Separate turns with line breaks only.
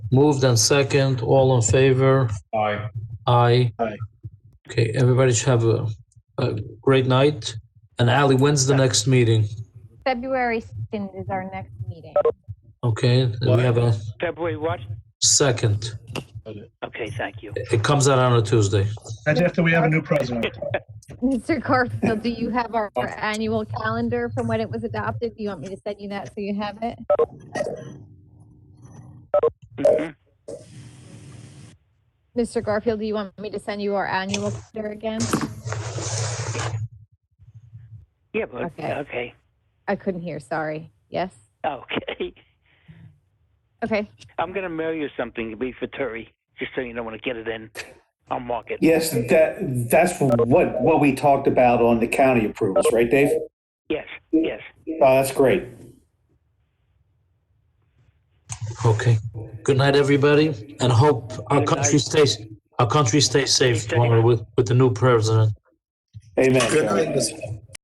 Moved and second, all in favor?
Aye.
Aye.
Aye.
Okay, everybody should have a, a great night. And Ali, when's the next meeting?
February 2nd is our next meeting.
Okay, we have a
February what?
second.
Okay, thank you.
It comes out on a Tuesday.
That's after we have a new president.
Mr. Garfield, do you have our our annual calendar from when it was adopted? Do you want me to send you that so you have it?
Mhm.
Mr. Garfield, do you want me to send you our annual calendar again?
Yeah, but,
Okay.
okay,
I couldn't hear, sorry. Yes?
okay.
Okay.
I'm gonna mail you something, it'll be for Terry, just so you know when I get it in. I'll mark it.
Yes, that, that's what, what we talked about on the county approvals, right, Dave?
Yes, yes.
Oh, that's great.
Okay. Good night, everybody, and hope our country stays, our country stays safe
Stay safe.
tomorrow with, with the new president.
Amen.
Good night,
John.
Mr.